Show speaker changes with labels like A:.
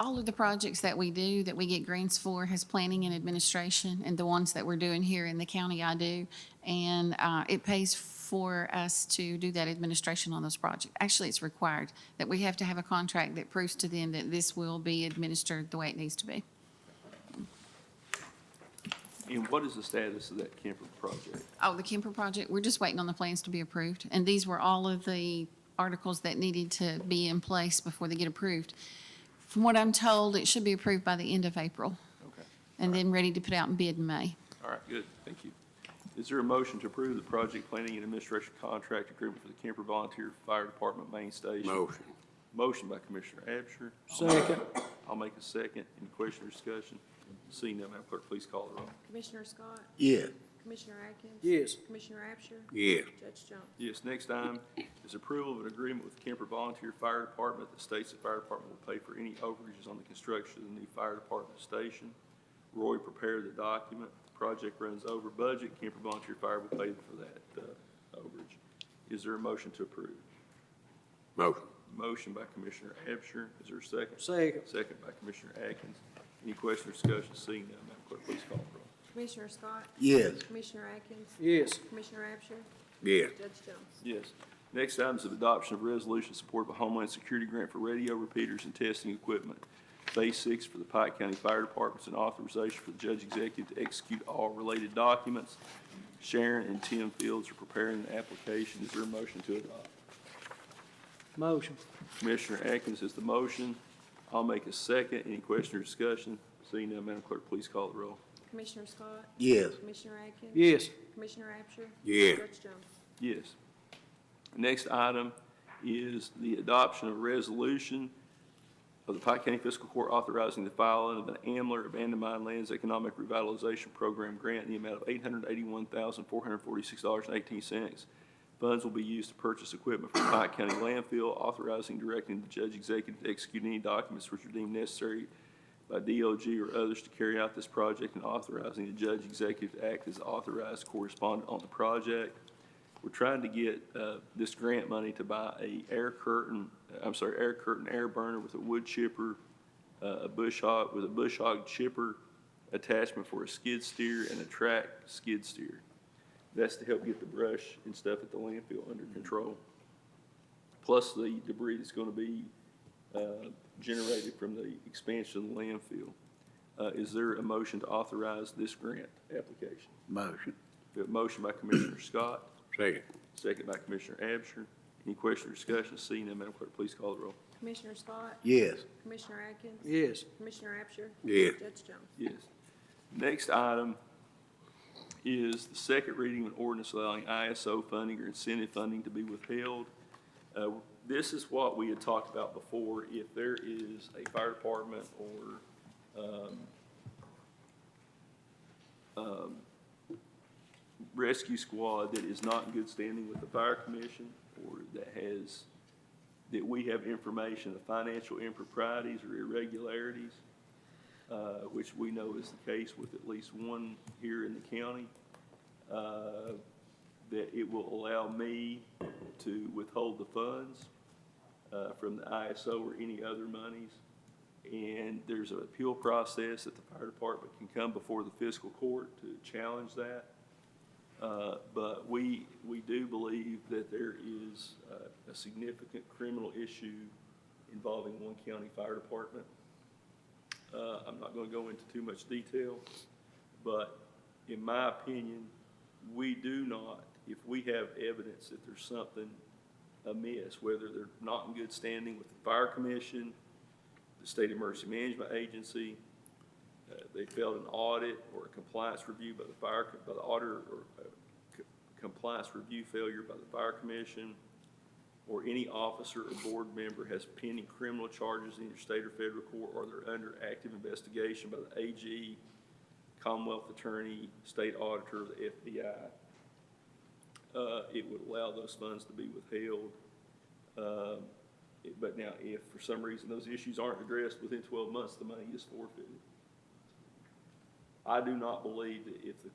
A: All of the projects that we do, that we get grants for, has planning and administration, and the ones that we're doing here in the county, I do. And uh, it pays for us to do that administration on those projects. Actually, it's required that we have to have a contract that proves to them that this will be administered the way it needs to be.
B: And what is the status of that Kemper project?
A: Oh, the Kemper project, we're just waiting on the plans to be approved. And these were all of the articles that needed to be in place before they get approved. From what I'm told, it should be approved by the end of April
B: Okay,
A: and then ready to put out in bid in May.
B: all right, good, thank you. Is there a motion to approve the project planning and administration contract agreement for the Kemper Volunteer Fire Department main station?
C: Motion.
B: Motion by Commissioner Absher.
D: Second.
B: I'll make a second. Any question or discussion? Seeing none, Madam Clerk, please call the roll.
E: Commissioner Scott?
C: Yeah.
E: Commissioner Atkins?
D: Yes.
E: Commissioner Absher?
C: Yeah.
E: Judge Jones?
B: Yes, next item is approval of an agreement with Kemper Volunteer Fire Department that states the fire department will pay for any overages on the construction of the new fire department station. Roy prepared the document. Project runs over budget. Kemper Volunteer Fire will pay for that uh, overage. Is there a motion to approve?
C: Motion.
B: Motion by Commissioner Absher. Is there a second?
D: Second.
B: Second by Commissioner Atkins. Any question or discussion? Seeing none, Madam Clerk, please call the roll.
E: Commissioner Scott?
C: Yes.
E: Commissioner Atkins?
D: Yes.
E: Commissioner Absher?
C: Yeah.
E: Judge Jones?
B: Yes. Next item is the adoption of resolution support of a Homeland Security grant for radio repeaters and testing equipment, Phase Six for the Pike County Fire Departments, and authorization for the judge executive to execute all related documents. Sharon and Tim Fields are preparing the application. Is there a motion to adopt?
D: Motion.
B: Commissioner Atkins is the motion. I'll make a second. Any question or discussion? Seeing none, Madam Clerk, please call the roll.
E: Commissioner Scott?
C: Yes.
E: Commissioner Atkins?
D: Yes.
E: Commissioner Absher?
C: Yeah.
E: Judge Jones?
B: Yes. Next item is the adoption of a resolution of the Pike County Fiscal Court authorizing the filing of an AMLR Abandoned Mine Lands Economic Revitalization Program grant in the amount of eight hundred eighty-one thousand, four hundred forty-six dollars and eighteen cents. Funds will be used to purchase equipment from Pike County landfill, authorizing, directing the judge executive to execute any documents which are deemed necessary by DOG or others to carry out this project, and authorizing the judge executive to act as authorized correspondent on the project. We're trying to get uh, this grant money to buy a air curtain, I'm sorry, air curtain air burner with a wood chipper, uh, a bush hog, with a bush hog chipper attachment for a skid steer and a track skid steer. That's to help get the brush and stuff at the landfill under control. Plus the debris that's going to be uh, generated from the expansion of the landfill. Uh, Is there a motion to authorize this grant application?
C: Motion.
B: We have a motion by Commissioner Scott.
C: Second.
B: Second by Commissioner Absher. Any question or discussion? Seeing none, Madam Clerk, please call the roll.
E: Commissioner Scott?
C: Yes.
E: Commissioner Atkins?
D: Yes.
E: Commissioner Absher?
C: Yeah.
E: Judge Jones?
B: Yes. Next item is the second reading of an ordinance allowing ISO funding or incentive funding to be withheld. Uh, This is what we had talked about before. If there is a fire department or um, rescue squad that is not in good standing with the fire commission or that has, that we have information of financial improprieties or irregularities, uh, which we know is the case with at least one here in the county, uh, that it will allow me to withhold the funds uh, from the ISO or any other monies. And there's an appeal process that the fire department can come before the fiscal court to challenge that. Uh, But we, we do believe that there is uh, a significant criminal issue involving one county fire department. Uh, I'm not going to go into too much detail, but in my opinion, we do not, if we have evidence that there's something amiss, whether they're not in good standing with the fire commission, the state emergency management agency, uh, they failed an audit or a compliance review by the fire, co- by the auditor, or uh, c- compliance review failure by the fire commission, or any officer or board member has pending criminal charges in either state or federal court, or they're under active investigation by the AG, Commonwealth Attorney, State Auditor, or the FBI, uh, it would allow those funds to be withheld. Um, it- But now, if for some reason those issues aren't addressed within twelve months, the money is forfeited. I do not believe that if the